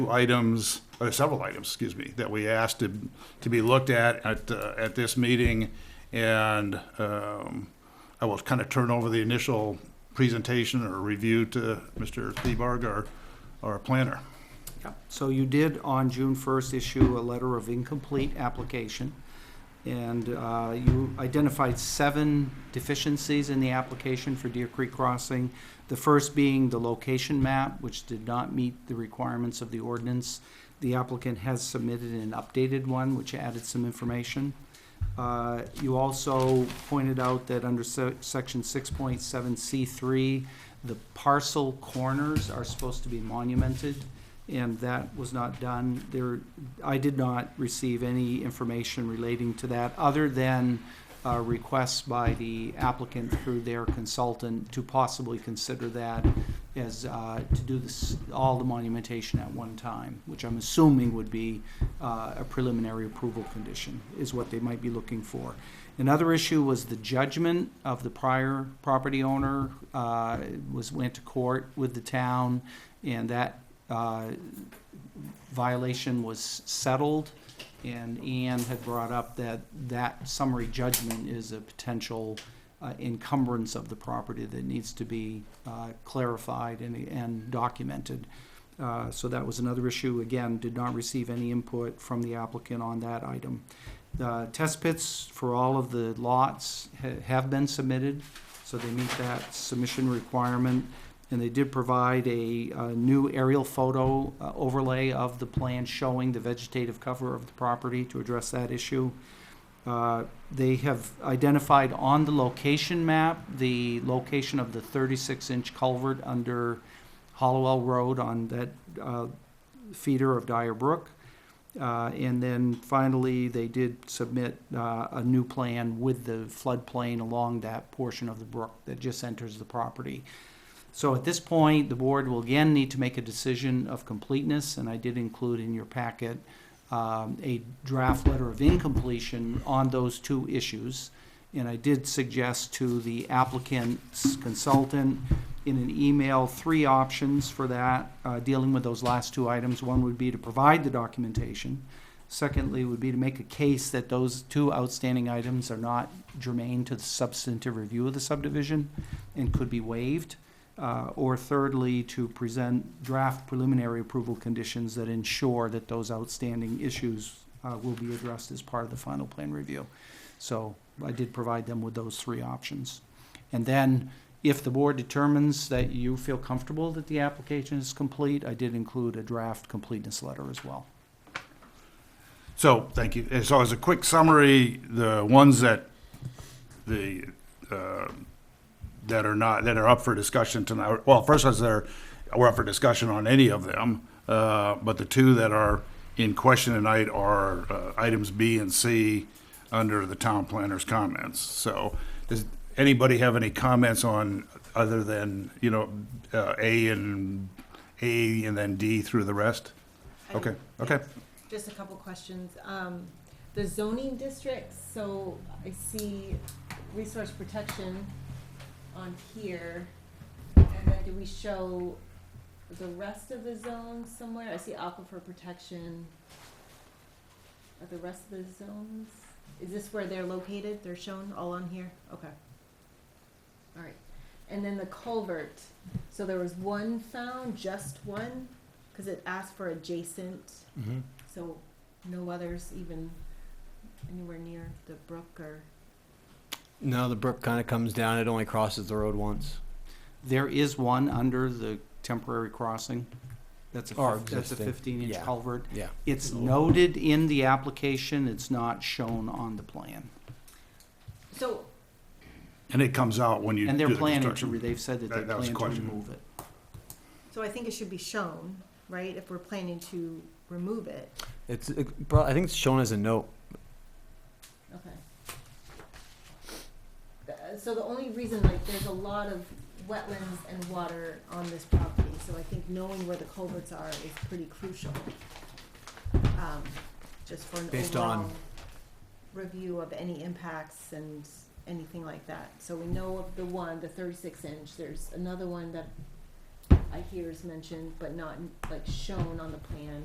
items, or several items, excuse me, that we asked to, to be looked at at, uh, at this meeting. And um, I will kind of turn over the initial presentation or review to Mr. Thebarg, our, our planner. Yeah, so you did on June first issue a letter of incomplete application. And uh, you identified seven deficiencies in the application for Deer Creek Crossing. The first being the location map, which did not meet the requirements of the ordinance. The applicant has submitted an updated one, which added some information. Uh, You also pointed out that under se- section six point seven C three, the parcel corners are supposed to be monumented, and that was not done. There, I did not receive any information relating to that, other than uh, requests by the applicant through their consultant to possibly consider that as, uh, to do this, all the monumentation at one time, which I'm assuming would be uh, a preliminary approval condition, is what they might be looking for. Another issue was the judgment of the prior property owner uh, was, went to court with the town, and that uh, violation was settled. And Ann had brought up that that summary judgment is a potential uh, encumbrance of the property that needs to be uh, clarified and, and documented. Uh, So that was another issue. Again, did not receive any input from the applicant on that item. The test pits for all of the lots ha- have been submitted, so they meet that submission requirement. And they did provide a, uh new aerial photo uh, overlay of the plan showing the vegetative cover of the property to address that issue. Uh, They have identified on the location map, the location of the thirty-six inch culvert under Hollowell Road on that uh, feeder of Dyer Brook. Uh, And then finally, they did submit uh, a new plan with the floodplain along that portion of the brook that just enters the property. So at this point, the board will again need to make a decision of completeness, and I did include in your packet um, a draft letter of incompletion on those two issues. And I did suggest to the applicant's consultant in an email, three options for that, uh, dealing with those last two items. One would be to provide the documentation. Secondly, would be to make a case that those two outstanding items are not germane to the substantive review of the subdivision and could be waived. Uh, Or thirdly, to present draft preliminary approval conditions that ensure that those outstanding issues uh, will be addressed as part of the final plan review. So I did provide them with those three options. And then, if the board determines that you feel comfortable that the application is complete, I did include a draft completeness letter as well. So, thank you. And so as a quick summary, the ones that the, uh, that are not, that are up for discussion tonight, well, first as they're, we're up for discussion on any of them, uh, but the two that are in question tonight are uh, items B and C under the town planner's comments. So, does anybody have any comments on, other than, you know, uh, A and, A and then D through the rest? I Okay, don't- okay. Just a couple questions. Um, the zoning districts, so I see resource protection on here. And then do we show the rest of the zones somewhere? I see aquifer protection. Are the rest of the zones, is this where they're located? They're shown all on here? Okay. All right. And then the culvert. So there was one found, just one, because it asked for adjacent. Mm-hmm. So no others even anywhere near the brook or, No, the brook kind of comes down. It only crosses the road once. There is one under the temporary crossing. That's a, Or fif- that's a existing, fifteen inch yeah. culvert. Yeah. It's noted in the application, it's not shown on the plan. so, And it comes out when you And they're do the planning to, construction. re- they've said that they That- that was plan a to question. remove it. so I think it should be shown, right? If we're planning to remove it. It's. It, pro- I think it's shown as a note. Okay. Uh, So the only reason, like, there's a lot of wetlands and water on this property, so I think knowing where the culverts are is pretty crucial. Um, Just for an Based on- overall review of any impacts and anything like that. So we know of the one, the thirty-six inch, there's another one that I hear is mentioned, but not like shown on the plan.